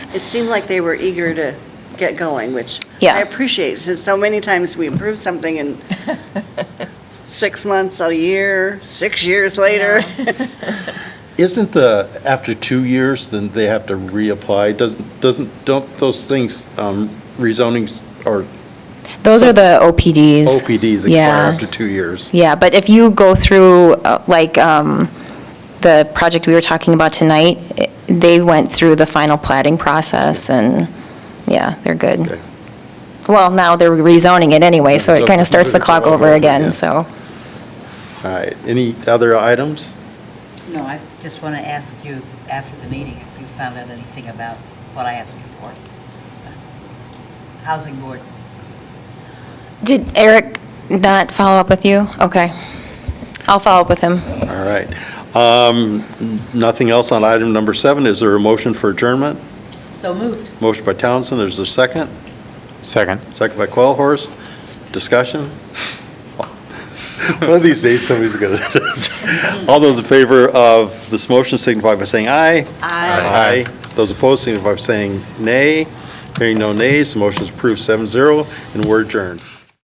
it seemed like they were eager to get going, which Yeah. I appreciate, since so many times we approve something in six months, a year, six years later. Isn't the, after two years, then they have to reapply? Doesn't, doesn't, don't those things, um, rezonings or Those are the OPDs. OPDs Yeah. expire after two years? Yeah, but if you go through, uh, like, um, the project we were talking about tonight, i- they went through the final plating process, and, yeah, they're good. Okay. Well, now they're rezoning it anyway, so So it kind of starts the it's clock all over over again, again. so. All right, any other items? No, I just want to ask you after the meeting if you found out anything about what I asked before. Housing Board. Did Eric not follow up with you? Okay. I'll follow up with him. All right. Um, Nothing else on item number seven. Is there a motion for adjournment? So moved. Motion by Townsend, there's a second. Second. Second by Quellhorst. Discussion? One of these days, somebody's going to. All those in favor of this motion signify by saying aye. Aye. Those opposed signify by saying nay. Hearing no nays, the motion is approved 7-0, and we're adjourned.